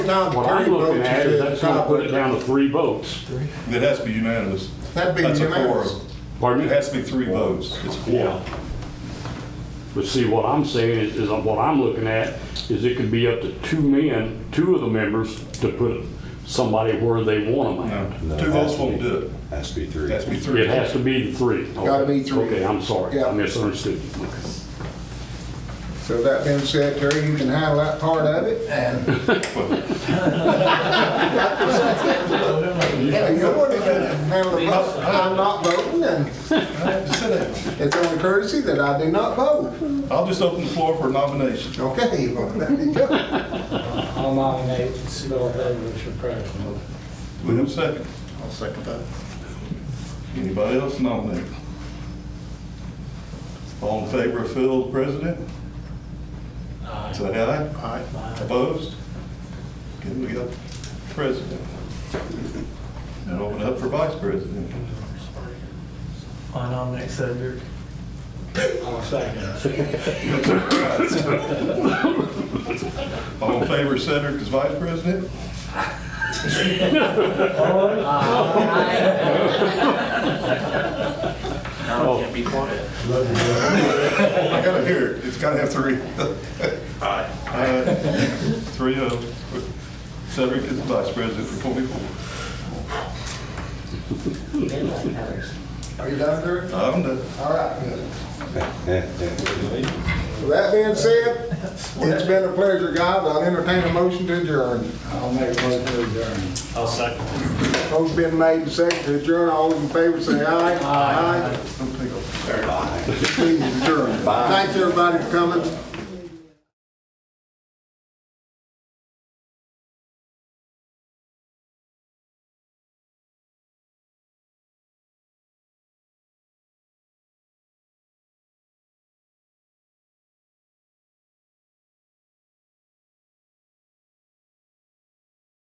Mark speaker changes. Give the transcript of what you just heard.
Speaker 1: Down
Speaker 2: What I'm
Speaker 1: three
Speaker 2: looking
Speaker 1: votes
Speaker 2: at
Speaker 1: to
Speaker 2: is that's gonna put it down to three votes.
Speaker 3: It has to be unanimous.
Speaker 1: That'd be
Speaker 3: That's a
Speaker 1: unanimous.
Speaker 3: quorum.
Speaker 2: Pardon
Speaker 3: It
Speaker 2: me?
Speaker 3: has to be three votes. It's a
Speaker 2: Yeah.
Speaker 3: quorum.
Speaker 2: But see, what I'm saying is, is what I'm looking at is it could be up to two men, two of the members to put somebody where they want them at.
Speaker 3: No, Two votes won't do it.
Speaker 4: Has to be three.
Speaker 3: It has to be three.
Speaker 2: It has to be the three.
Speaker 1: Gotta be three.
Speaker 2: Okay, I'm sorry.
Speaker 1: Yeah.
Speaker 2: I misunderstood. you.
Speaker 1: So that being said, Terry, you can handle that part of it, and Yeah, you're one that can handle the vote. I'm not voting, and
Speaker 3: Just sit
Speaker 1: it's only courtesy that I do not vote.
Speaker 3: down. I'll just open the floor for nomination.
Speaker 1: Okay, well, there you go.
Speaker 5: I'll nominate Bill Herbert for president.
Speaker 3: We have a second. I'll second that. Anybody else nominate? All in favor of Phil as president? Say aye. Aye. Opposed? Okay, we got president. And open up for vice president.
Speaker 6: I nominate Cedric.
Speaker 5: I'll second.
Speaker 3: All in favor of Cedric as vice president?
Speaker 6: Now I can't be quiet.
Speaker 3: I gotta hear it. It's gotta have three. Aye. Three of them. Cedric is vice president for 24.
Speaker 1: Are you done, Terry?
Speaker 3: I'm done.
Speaker 1: All right. good. With That being said, it's been a pleasure, guys. I'll entertain a motion to adjourn.
Speaker 5: I'll make a motion to adjourn.
Speaker 6: I'll second.
Speaker 1: Motion been made and seconded to adjourn. All those in favor say aye. Aye.
Speaker 3: Don't take off.
Speaker 1: Please adjourn. Thanks, everybody, for coming.